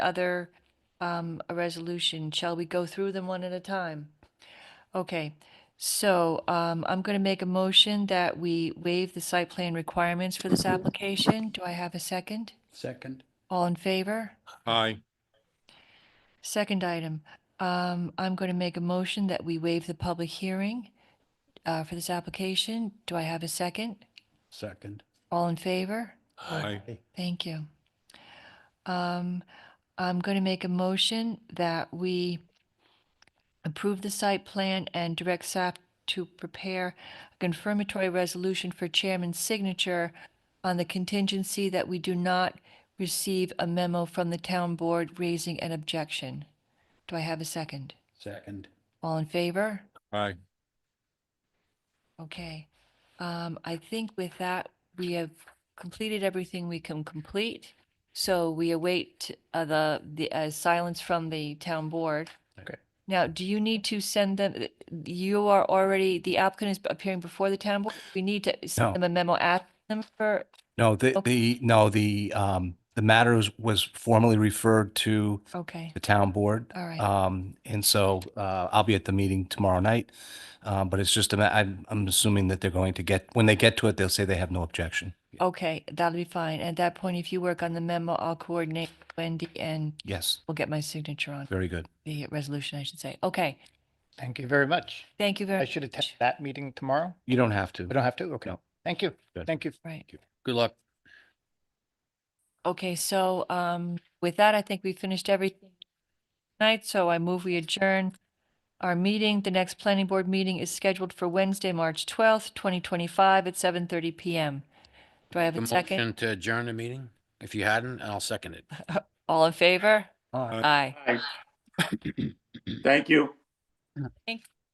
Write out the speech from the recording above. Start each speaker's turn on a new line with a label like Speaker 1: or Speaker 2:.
Speaker 1: other, um, a resolution. Shall we go through them one at a time? Okay, so, um, I'm gonna make a motion that we waive the site plan requirements for this application. Do I have a second?
Speaker 2: Second,
Speaker 1: All in favor?
Speaker 3: Aye.
Speaker 1: Second item, um, I'm going to make a motion that we waive the public hearing uh, for this application. Do I have a second?
Speaker 2: second.
Speaker 1: All in favor?
Speaker 3: Aye.
Speaker 1: Thank you. Um, I'm going to make a motion that we approve the site plan and direct staff to prepare a confirmatory resolution for chairman's signature on the contingency that we do not receive a memo from the town board raising an objection. Do I have a second?
Speaker 2: Second,
Speaker 1: All in favor?
Speaker 3: Aye.
Speaker 1: Okay, um, I think with that, we have completed everything we can complete. So we await uh, the, the uh, silence from the town board.
Speaker 2: Okay.
Speaker 1: Now, do you need to send them, you are already, the applicant is appearing before the town board? We need to
Speaker 4: No.
Speaker 1: send them a memo at them for,
Speaker 4: No, the,
Speaker 1: Okay.
Speaker 4: the, no, the, um, the matter was, was formally referred to
Speaker 1: okay,
Speaker 4: the town board.
Speaker 1: all right,
Speaker 4: Um, and so, uh, I'll be at the meeting tomorrow night. Um, but it's just, a ma- I'm, I'm assuming that they're going to get, when they get to it, they'll say they have no objection.
Speaker 1: okay, that'll be fine. At that point, if you work on the memo, I'll coordinate with Wendy and
Speaker 4: Yes,
Speaker 1: we'll get my signature on
Speaker 4: very good.
Speaker 1: the resolution, I should say. Okay,
Speaker 5: Thank you very much.
Speaker 1: thank you very
Speaker 5: I
Speaker 1: much.
Speaker 5: should attend that meeting tomorrow.
Speaker 4: You don't have to.
Speaker 5: I don't have to? Okay.
Speaker 4: No.
Speaker 5: Thank you.
Speaker 4: Good.
Speaker 5: Thank you.
Speaker 1: Right.
Speaker 2: good luck.
Speaker 1: Okay, so um, with that, I think we finished everything tonight, so I move we adjourn our meeting. The next planning board meeting is scheduled for Wednesday, March twelfth, twenty twenty-five at seven thirty PM. Do I have
Speaker 6: The
Speaker 1: a second?
Speaker 6: motion to adjourn the meeting? If you hadn't, I'll second it.
Speaker 1: All in favor?
Speaker 4: Aye.
Speaker 1: Aye.
Speaker 7: Thank you.